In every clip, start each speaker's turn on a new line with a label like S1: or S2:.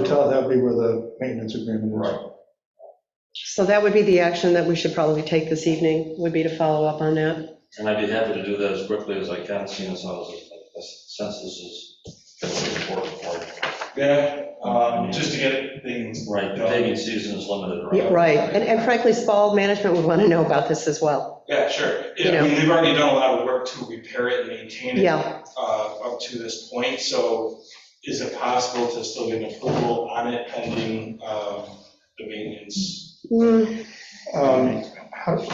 S1: tell, that would be where the maintenance agreement is.
S2: Right.
S3: So that would be the action that we should probably take this evening, would be to follow up on that.
S2: And I'd be happy to do that as quickly as I can, seeing as how, this- since this is gonna be important for,
S4: Yeah, um, just to get things,
S2: right, the paving season is limited,
S3: Yeah,
S2: right?
S3: Right, and and frankly, Spal management would want to know about this as well.
S4: yeah, sure.
S3: You
S4: Yeah, I
S3: know.
S4: mean, they've already done a lot of work to repair it and maintain it
S3: Yeah,
S4: uh, up to this point, so is it possible to still get an approval on it pending um, the maintenance?
S3: Mm,
S1: Um, how-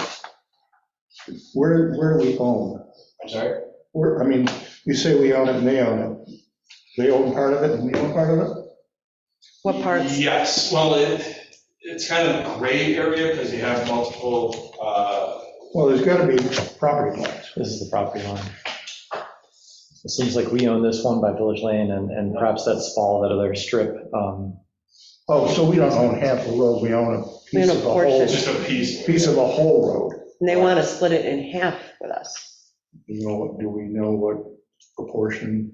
S1: Where, where do we own?
S4: I'm sorry?
S1: Where, I mean, you say we own it and they own it. They own part of it and we own part of it?
S3: what parts?
S4: Yes, well, it, it's kind of a gray area because you have multiple, uh,
S1: Well, there's got to be property lines.
S5: This is the property line. It seems like we own this one by Village Lane and, and perhaps that's all that other strip. um,
S1: Oh, so we don't own half the road, we own a
S3: We
S1: piece
S3: own a
S1: of the whole,
S3: portion.
S4: just a piece.
S1: piece of a whole road.
S3: And they want to split it in half with us.
S1: You know, do we know what proportion?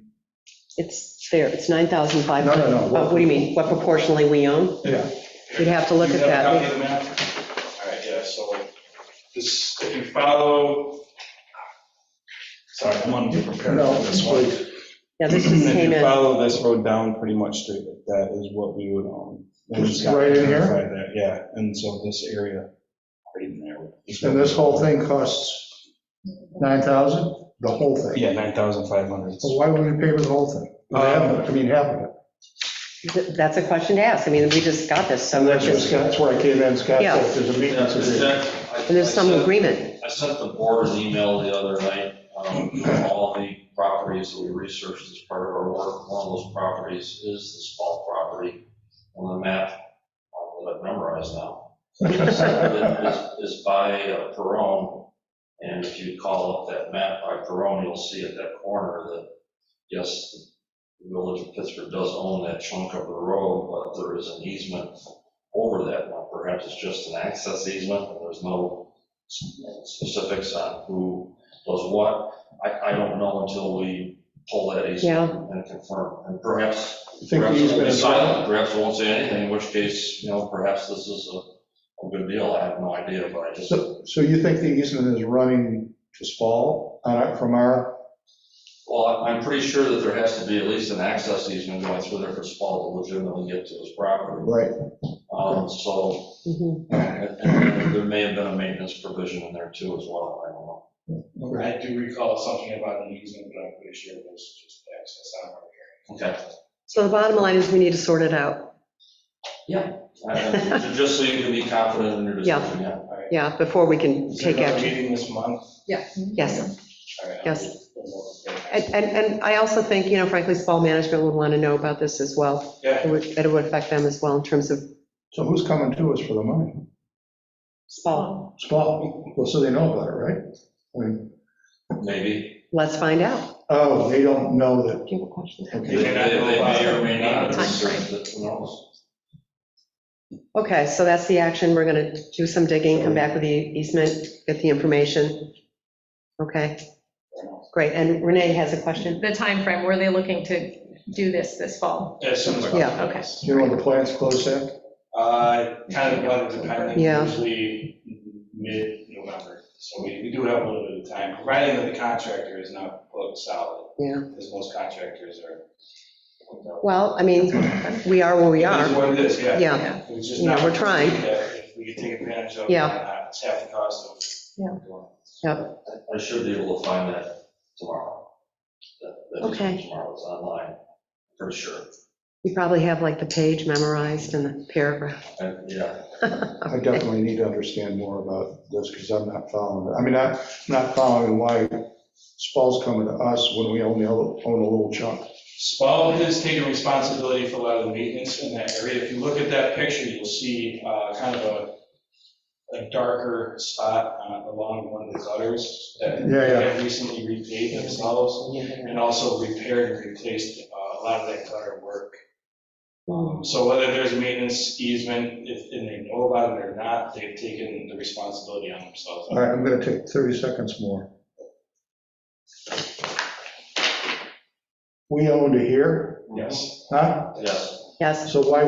S3: It's there, it's
S1: No,
S3: 9,500.
S1: no, no.
S3: Uh, What do you mean, what proportionally we own?
S1: Yeah,
S3: We'd have to look
S4: You
S3: at
S4: have a
S3: that.
S4: copy of the map? All right, yeah, so this, if you follow, sorry, I'm unprepared
S1: no,
S4: for this one.
S1: please.
S3: Yeah, this just came
S6: If you
S3: in.
S6: follow this road down pretty much to, that is what we would own.
S1: Which is right in here?
S6: Right there, Yeah, and so this area, right in there.
S1: And this whole thing costs 9,000? The whole thing?
S6: Yeah, 9,500.
S1: Well, why would we pay for the whole thing? They own it, I mean, half of it.
S3: Th- That's a question to ask. I mean, we just got this, so
S1: And
S3: we're
S1: that's where
S3: just,
S1: Scott, that's where I came in, Scott
S3: Yeah.
S1: said there's a
S2: Yeah,
S1: maintenance
S2: is
S1: agreement.
S2: that- I-
S3: and there's
S2: I
S3: some
S2: sent-
S3: agreement.
S2: I sent the board an email the other night, um, all the properties that we researched as part of our work. One of those properties is the Spal property on the map uh, that I've memorized now. It is is by uh, Perone, and if you call up that map by Perone, you'll see at that corner that, yes, the village of Pittsburgh does own that chunk of the road, but there is an easement over that one. Perhaps it's just an access easement, and there's no specifics on who does what. I, I don't know until we pull that easement and confirm, and perhaps
S1: I think
S2: Perhaps
S1: he's
S2: it'll
S1: been
S2: be silent,
S1: silent.
S2: perhaps it won't say anything, in which case, you know, perhaps this is a, a good deal, I have no idea, but I just,
S1: So, so you think the easement is running to Spal on our- from our,
S2: well, I- I'm pretty sure that there has to be at least an access easement going through there for Spal to legitimately get to his property.
S1: right?
S2: Um, so,
S3: Mhm.
S2: and- and there may have been a maintenance provision in there too as well, I don't know.
S4: I do recall something about an easement, but I'm pretty sure it was just access out of here.
S2: Okay,
S3: So the bottom line is we need to sort it out.
S2: I- I- Uh, just so you can be confident in your
S3: Yeah.
S2: decision, yeah.
S3: Yeah, before we can
S4: Is there
S3: take
S4: another
S3: action.
S4: meeting this month?
S3: Yes.
S4: All right, I'll
S3: Yes.
S4: just go more prepared.
S3: And, and and I also think, you know, frankly, Spal management would want to know about this as well.
S4: Yeah,
S3: It would, that it would affect them as well in terms of
S1: So who's coming to us for the money?
S3: Spal.
S1: Spal, well, so they know about it, right? I mean,
S2: Maybe,
S3: Let's find out.
S1: oh, they don't know that,
S3: Do you have a question?
S2: they
S1: okay.
S4: They may not
S2: they-
S4: know
S2: they
S4: about
S2: may
S4: it.
S2: or may not,
S4: Time
S2: it's, who knows?
S3: Okay, so that's the action. We're going to do some digging, come back with the easement, get the information. Okay, great. And Renee has a question?
S7: The timeframe, were they looking to do this this fall?
S4: as soon as.
S3: Yeah.
S7: Okay.
S1: Do you know when the plant's closed at?
S4: Uh, kind of weather dependent,
S3: Yeah.
S4: usually mid-November, so we, we do have a little bit of time, providing that the contractor is not booked solid.
S3: Yeah.
S4: Because most contractors are.
S3: Well, I mean, we are where we
S4: It is
S3: are.
S4: what it is, yeah.
S3: Yeah,
S4: It's just
S3: You know,
S4: not-
S3: we're trying.
S4: Yeah, If we could take advantage of. it,
S3: Yeah.
S4: uh, It's half the cost of.
S7: Yeah.
S2: I should be able to find that tomorrow. That- that is
S3: Okay.
S2: Tomorrow, it's online, for sure.
S3: you probably have like the page memorized and the paragraph.
S2: And, Yeah,
S1: I definitely need to understand more about this because I'm not following it. I mean, I'm not following why Spal's coming to us when we only own own a little chunk.
S4: Spal has taken responsibility for a lot of the maintenance in that area. If you look at that picture, you'll see uh, kind of a, a darker spot uh, along one of the gutters that
S1: Yeah, yeah.
S4: have recently repaved themselves and also repaired and replaced uh, a lot of that gutter work.
S3: Well,
S4: So whether there's maintenance easement, if, and they know about it or not, they've taken the responsibility on themselves.
S1: All right, I'm going to take 30 seconds more. We owned it here,
S4: Yes.
S1: huh?
S2: yes.
S3: Yes.
S1: So why